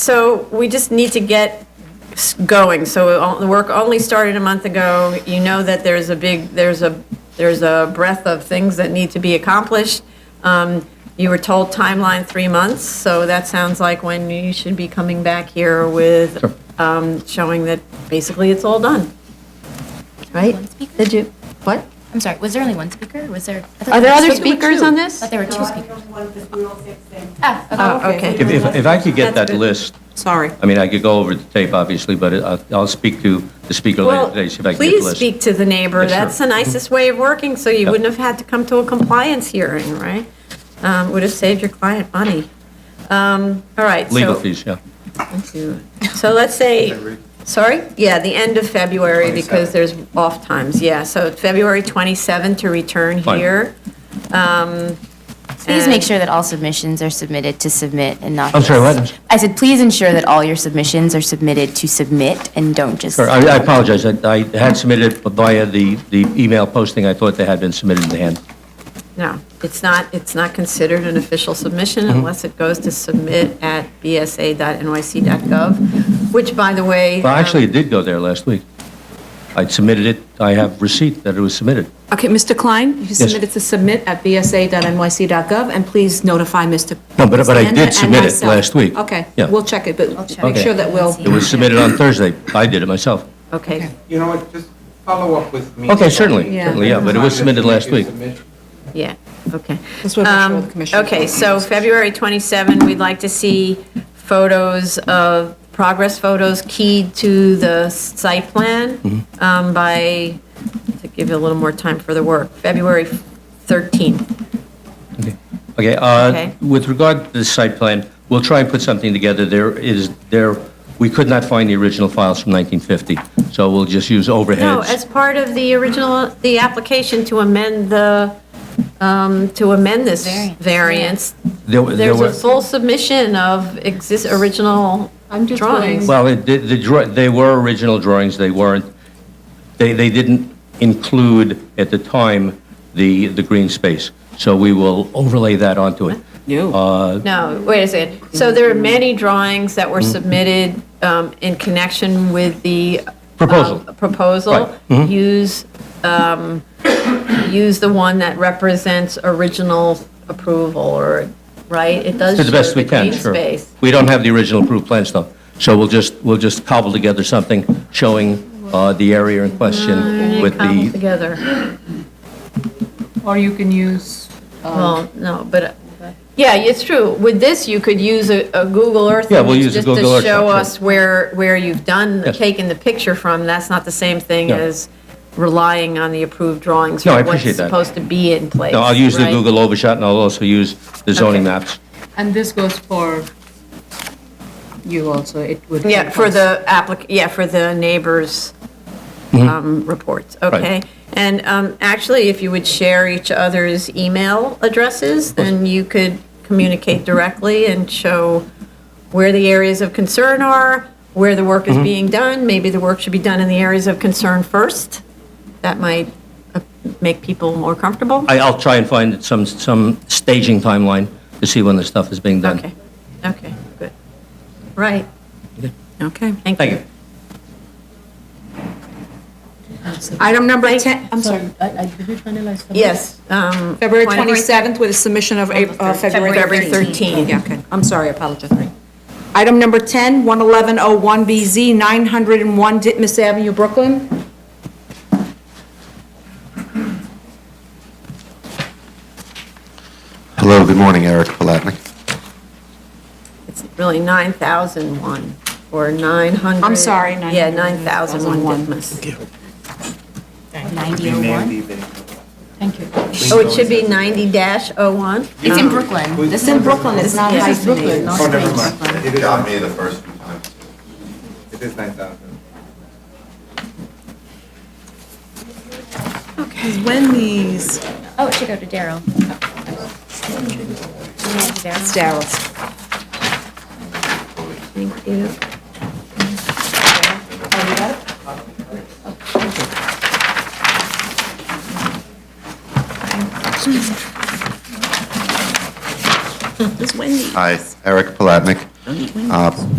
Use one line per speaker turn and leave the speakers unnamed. So we just need to get s- going. So all- the work only started a month ago. You know that there's a big, there's a, there's a breadth of things that need to be accomplished. Um, You were told timeline three months, so that sounds like when you should be coming back here with, um, showing that basically it's all done. Right?
One speaker?
Did you, what?
I'm sorry, was there only one speaker? or Was there? I thought
Are there other
was two.
speakers on this?
I thought there were
No,
two
I think
speakers.
only one, because we all said the same.
Ah,
Oh,
okay.
okay.
If, if- if I could get
That's
that
good.
list,
Sorry.
I mean, I could go over the tape, obviously, but I'll, I'll speak to the speaker later
Well,
today, see if I can get the
please
list.
speak to the neighbor.
Yeah, sure.
That's the nicest way of working, so you
Yeah.
wouldn't have had to come to a compliance hearing, right? Um, Would have saved your client money. Um, All right. so-
Legal fees, yeah.
So let's say, sorry? Yeah, the end of February, because there's off times, yeah. So February 27 to return
Fine.
here.
Please make sure that all submissions are submitted to submit and not.
I'm sorry,
just-
what?
I said, please ensure that all your submissions are submitted to submit and don't just.
Sure, I I apologize, I I had submitted via the, the email posting, I thought they had been submitted in the hand.
No, it's not, it's not considered an official submission
Mm-hmm.
unless it goes to submit at bsa.nyc.gov, which, by the way.
Well,
um,
actually, it did go there last week. I submitted it, I have receipt that it was submitted.
Okay, Mr. Klein, you submitted to submit at bsa.nyc.gov, and please notify Mr.
No, but- but I did
Zander and
submit it
myself.
last week.
Okay,
Yeah.
we'll check it, but
check
make
it.
sure that we'll.
It was submitted on Thursday, I did it myself.
Okay,
You know what, just follow up with me.
Okay, certainly,
Yeah.
certainly, yeah, but it was submitted last week.
yeah, okay.
That's what we're sure
Um,
the commissioner-
Okay, so February 27, we'd like to see photos of, progress photos keyed to the site plan um, by, to give you a little more time for the work, February 13.
Okay,
Okay.
uh, with regard to the site plan, we'll try and put something together. There is, there, we could not find the original files from 1950, so we'll just use
No, as
overheads.
part of the original, the application to amend the, um, to amend this
Variance,
variance,
There were- there
there's a
were-
full submission of exist, original
I'm just
drawings.
Well, it did- the draw- they were original drawings, they weren't, they they didn't include at the time the the green space, so we will overlay that onto it.
No, wait a second. So there are many drawings that
Mm-hmm.
were submitted um, in connection with the. um,
Proposal. Right. Mm-hmm.
Proposal. Use, um, use the one that represents original approval or, right? It does
To
show
the best we
the green
can, sure.
space.
We don't have the original approved plans, though, so we'll just, we'll just cobble together something showing uh, the area in question with
Cobbled
the,
together.
Or you can use,
Well, no, but, uh, yeah, it's true. With this, you could use a a Google Earth.
Yeah, we'll
image
use a
just
Google Earth
To show
shot, sure.
us where, where you've done,
Yes.
taken the picture from. That's not the same thing
No.
as relying on the approved drawings.
No,
for
I appreciate that.
What's supposed to be in place.
no, I'll use the
right?
Google overshot, and I'll also use the zoning
Okay.
maps.
and this goes for you also, it would.
Yeah,
help
for
us.
the applic, yeah, for the neighbors'
Mm-hmm.
um, reports, okay? And um, actually, if you would share each other's email addresses, then you could communicate directly and show where the areas of concern are, where the work
Mm-hmm.
is being done, maybe the work should be done in the areas of concern first. That might uh, make people more comfortable.
I- I'll try and find some, some staging timeline to see when the stuff is being done.
Okay, okay, good. Right. Okay. Thank
Thank you.
you.
Item number 10, I'm sorry,
Yes. um,
February
twenty-
27th with a submission of Ap- uh, February
February
13th.
13th.
Yeah, okay, I'm sorry, I apologize. Item number 10, 11101BZ, 901 Ditmas Avenue, Brooklyn.
Hello, good morning, Eric Palatnik.
It's really 9,001 or 900.
I'm sorry,
Yeah,
9,001.
9,001 Ditmas.
9001.
Thank you.
Oh, it should be 90 dash 01?
It's in Brooklyn. This is in Brooklyn. It's not
This is
Brooklyn.
Oh, never mind. It is-
Got me the first few times.
It is 9,000.
Wendy's.
Oh, it should go to Daryl. Daryl.
Daryl's.
Thank you.
It's Wendy's.
Hi, Eric Palatnik. Uh,